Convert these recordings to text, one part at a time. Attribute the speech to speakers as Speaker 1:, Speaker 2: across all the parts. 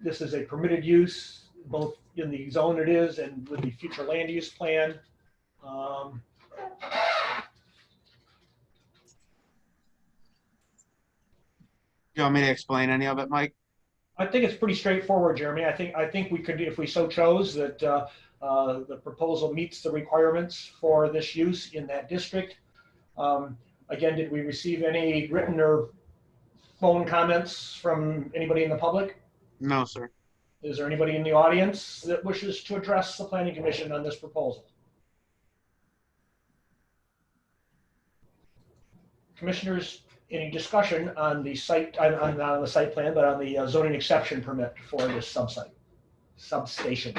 Speaker 1: this is a permitted use, both in the zone it is and with the future land use plan. Um,
Speaker 2: You want me to explain any of it, Mike?
Speaker 1: I think it's pretty straightforward, Jeremy. I think, I think we could, if we so chose, that uh, uh, the proposal meets the requirements for this use in that district. Um, Again, did we receive any written or phone comments from anybody in the public?
Speaker 2: No, sir.
Speaker 1: Is there anybody in the audience that wishes to address the planning commission on this proposal? Commissioners, any discussion on the site, on, on, not on the site plan, but on the uh, zoning exception permit for this subsite, substation?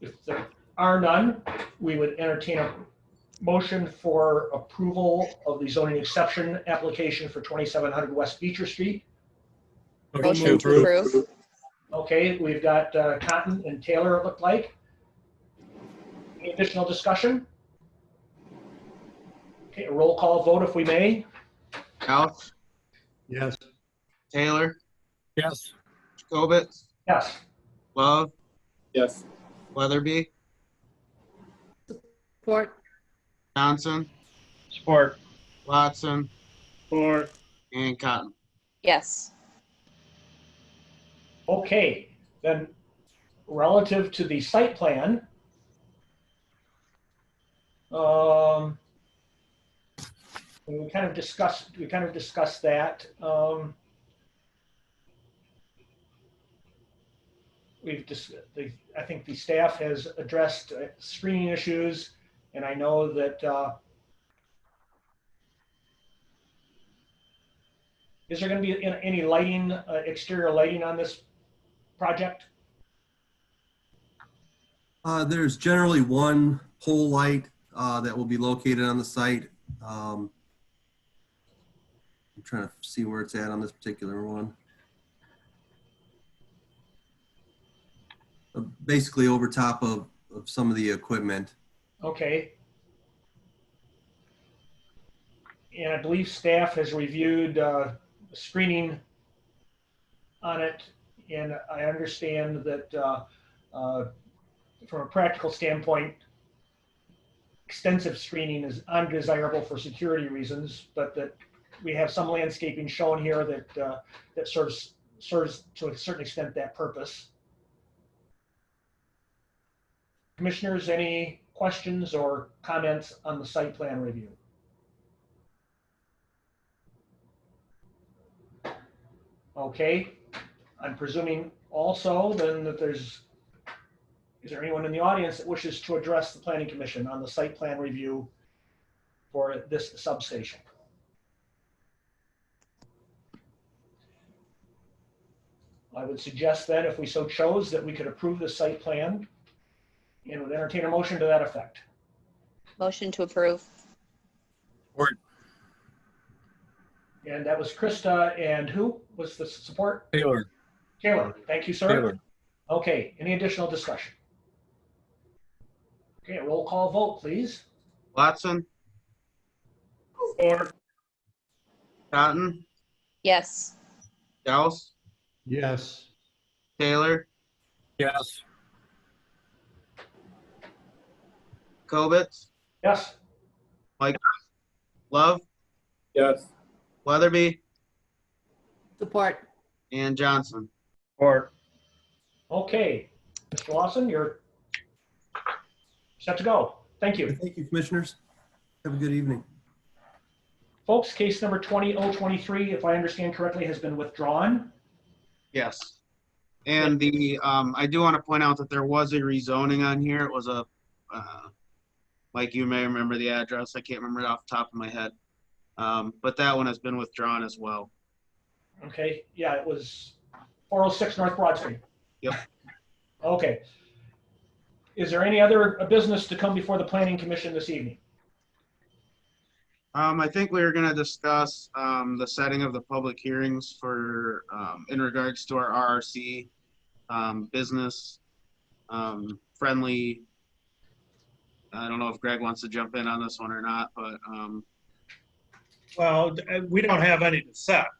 Speaker 1: If there are none, we would entertain a motion for approval of the zoning exception application for 2700 West Beecher Street.
Speaker 3: Motion to approve.
Speaker 1: Okay, we've got uh, Cotton and Taylor, it looked like. Any additional discussion? Okay, a roll call vote if we may.
Speaker 2: Alf,
Speaker 3: Yes.
Speaker 2: Taylor,
Speaker 3: Yes.
Speaker 2: Jacobitz,
Speaker 1: Yes,
Speaker 2: Love,
Speaker 4: Yes.
Speaker 2: Weatherby,
Speaker 5: Support.
Speaker 2: Johnson,
Speaker 4: Support.
Speaker 2: Watson,
Speaker 4: Support.
Speaker 2: and Cotton.
Speaker 5: Yes.
Speaker 1: okay, then relative to the site plan, um, we kind of discussed, we kind of discussed that. um, We've just, I think the staff has addressed uh, screening issues, and I know that uh, is there going to be an- any lighting, uh, exterior lighting on this project?
Speaker 6: Uh, there's generally one pole light, uh, that will be located on the site. Um, I'm trying to see where it's at on this particular one. Uh, Basically over top of, of some of the equipment.
Speaker 1: Okay. And I believe staff has reviewed uh, screening on it, and I understand that uh, uh, from a practical standpoint, extensive screening is undesirable for security reasons, but that we have some landscaping shown here that, uh, that serves, serves to a certain extent that purpose. Commissioners, any questions or comments on the site plan review? Okay, I'm presuming also then that there's, is there anyone in the audience that wishes to address the planning commission on the site plan review for this substation? I would suggest then, if we so chose, that we could approve the site plan and would entertain a motion to that effect.
Speaker 5: Motion to approve.
Speaker 1: And that was Krista, and who was the support?
Speaker 3: Taylor.
Speaker 1: Taylor, thank you, sir. Okay, any additional discussion? Okay, roll call vote, please.
Speaker 2: Watson,
Speaker 4: Support.
Speaker 2: Cotton,
Speaker 5: Yes.
Speaker 2: Gauss,
Speaker 3: Yes.
Speaker 2: Taylor,
Speaker 3: Yes.
Speaker 2: Jacobitz,
Speaker 1: Yes,
Speaker 2: Love,
Speaker 4: Yes.
Speaker 2: Weatherby,
Speaker 5: Support.
Speaker 2: and Johnson.
Speaker 4: Support.
Speaker 1: okay. Mr. Lawson, you're set to go. Thank you.
Speaker 6: Thank you, commissioners. Have a good evening.
Speaker 1: Folks, case number 20023, if I understand correctly, has been withdrawn.
Speaker 2: Yes. And the, um, I do want to point out that there was a rezoning on here. It was a, uh, Mike, you may remember the address. I can't remember it off the top of my head. Um, but that one has been withdrawn as well.
Speaker 1: Okay, yeah, it was 406 North Broad Street.
Speaker 2: Yep.
Speaker 1: Okay. Is there any other uh, business to come before the planning commission this evening?
Speaker 2: Um, I think we were gonna discuss, um, the setting of the public hearings for, um, in regards to our RRC, um, business, um, friendly. I don't know if Greg wants to jump in on this one or not, but, um,
Speaker 4: Well, we don't have any to set.